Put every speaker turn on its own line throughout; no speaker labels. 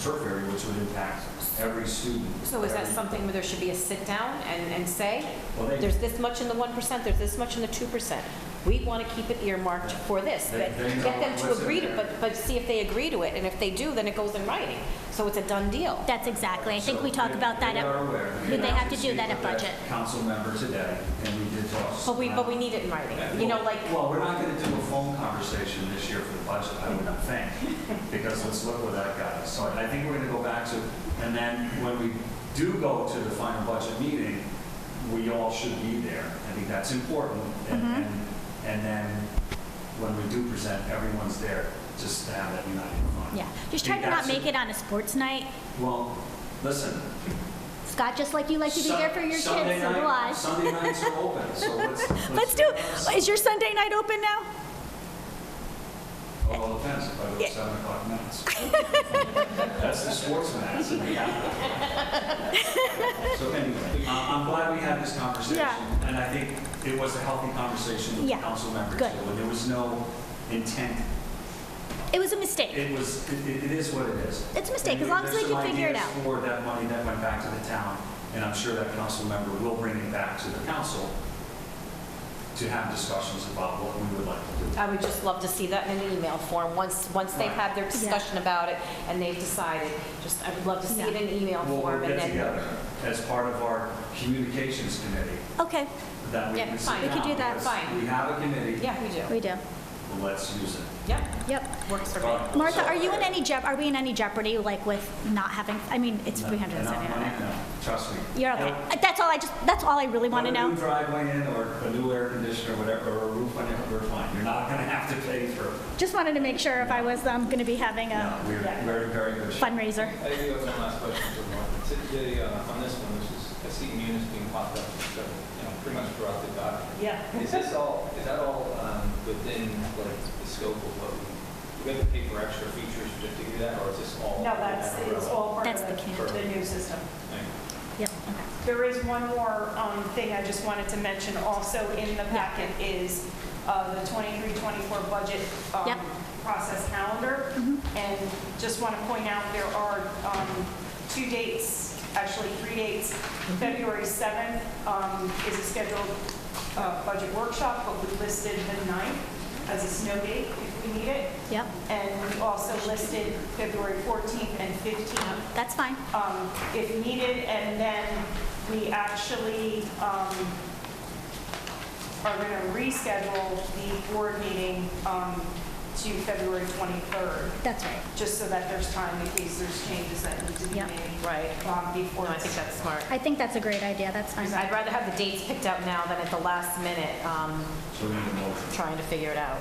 turf area, which would impact every student.
So is that
every-
something where there should be a sit-down and, and say,
Well, they-
there's this much in the 1%, there's this much in the 2%? We want to keep it earmarked for this,
They-
but
they know
get them to
what's in
agree to,
there.
but, but see if they agree to it, and if they do, then it goes in writing. So it's a done deal.
That's exactly, I think
So
we talk
they-
about that,
They are
at-
aware.
but they have
I
to
did
do
speak
that at
with that
budget.
Council member today, and we did talk.
But we, but we need it in writing, you know, like,
Well, we're not going to do a phone conversation this year for the budget, I wouldn't think, because let's look where that got us. So I think we're going to go back to, and then when we do go to the final budget meeting, we all should be there. I think that's important. And,
Mm-hmm.
and and then when we do present, everyone's there, just to have that united front.
yeah. Just
I
try
think
to not
that's-
make it on a sports night.
Well, listen,
Scott, just like you like to be there for your kids, so
Sunday
do
night-
I.
Sunday nights are open, so let's.
Let's do it. Is your Sunday night open now?
Well, all depends if I go to seven o'clock mass. That's the sports mass. So anyway, I- I'm glad we had this conversation.
Yeah.
And I think it was a healthy conversation with the
Yeah.
council members.
Good.
too, And there was no intent.
It was a mistake.
It was, it- it it is what it is.
It's a mistake,
And
as long as
there's
we
some
can figure it
ideas
out.
For that money that went back to the town, and I'm sure that council member will bring it back to the council to have discussions about what we would like to do.
I would just love to see that in an email form, once, once they've had their discussion about it and they've decided, just, I would love to see it in email
We'll
form,
we'll
and
get
then,
together as part of our communications committee
Okay,
that we
Yeah,
can sit
fine. We could
down,
do that.
because
Fine.
We have a committee,
yeah, we do.
we do.
let's use it.
Yeah,
Yep.
works for me.
Martha, are you in any je, are we in any jeopardy, like with not having, I mean, it's
No, not mine,
379.
no, Trust me.
You're okay.
Nope.
Uh, That's all I just, that's all I really want to
Put a new
know.
driveway in or a new air conditioner, whatever, or a roof on it, we're fine. You're not going to have to pay for,
Just wanted to make sure if I was, um, going to be having
no,
a
we're very, very good. shape.
fundraiser.
I do have one last question for Mark. Today, uh, on this one, which is, I see munis being popped up, so, you know, pretty much throughout the document.
Yeah.
Is this all, is that all um, within, like, the scope of what, we- do we have to pay for extra features just to do that, or is this all?
No, that's, it's all part
That's the
of
candidate.
the- the new system.
Thank you.
Yep.
There is one more um, thing I just wanted to mention also in the packet is uh, the 23-24 budget um,
Yep. Mm-hmm.
process calendar. And just want to point out, there are um, two dates, actually three dates.
Mm-hmm.
February 7th um, is a scheduled uh, budget workshop, but we listed the 9th as a snow date if we need it.
Yep,
And we also listed February 14th and 15th
that's fine.
um, if needed, and then we actually um, are going to reschedule the board meeting um, to February 23rd,
That's right.
just so that there's time in case there's changes that need to be
Yeah.
made
Right.
um,
No,
before.
I think
it's-
that's smart.
I think that's a great idea, that's fine.
I'd rather have the dates picked out now than at the last minute, um,
So we need a motion.
trying to figure it out.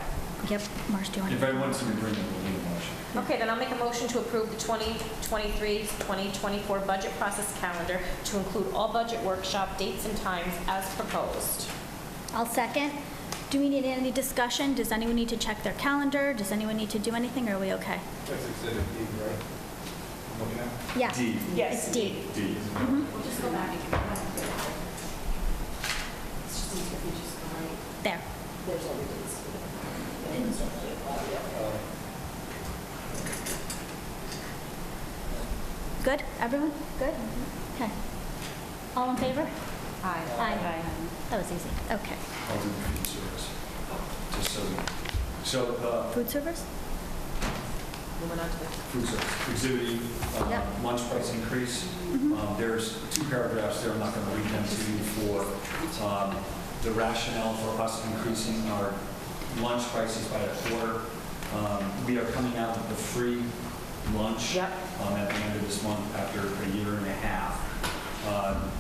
Yep, Marsh, do you want
If
to?
everyone's in agreement, we'll need a motion.
Okay, then I'll make a motion to approve the 2023-2024 budget process calendar to include all budget workshop dates and times as proposed.
I'll second. Do we need any discussion? Does anyone need to check their calendar? Does anyone need to do anything, or are we okay?
That's exhibit D, right? I'm looking at.
Yeah.
D,
It's
Yes.
D.
D.
We'll just go back. It's just easier if you just go right.
There.
There's all the dates.
Good? Everyone? Good? Okay. All in favor?
Aye.
Aye. That was easy. Okay.
I'll do food service. Just so, you- so uh,
Food servers?
Moving on to the
food service, exhibiting uh,
Yep.
lunch price increase. Um, There's two paragraphs there, I'm not going to read them to you for um, the rationale for us increasing our lunch prices by a quarter. Um, We are coming out with the free lunch
Yep.
um, at the end of this month after a year and a half. Um,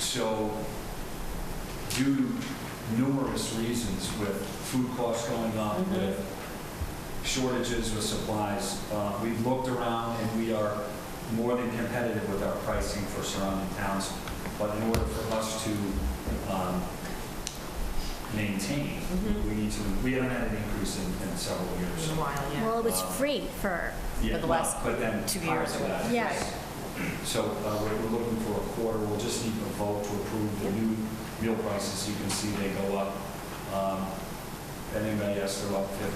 So due to numerous reasons with food costs going up, with shortages with supplies. Uh, We've looked around and we are more than competitive with our pricing for surrounding towns. But in order for us to um, maintain, we need to, we haven't had an increase in in several years.
while, yeah.
Well, it was free for,
Yeah,
For the
well,
last
but then
two
prior
years
to
or
that,
whatever.
Yeah.
yes. So uh, we're we're looking for a quarter, we'll just need a vote to approve the new meal prices, you can see they go up. Um, Anybody else, they're up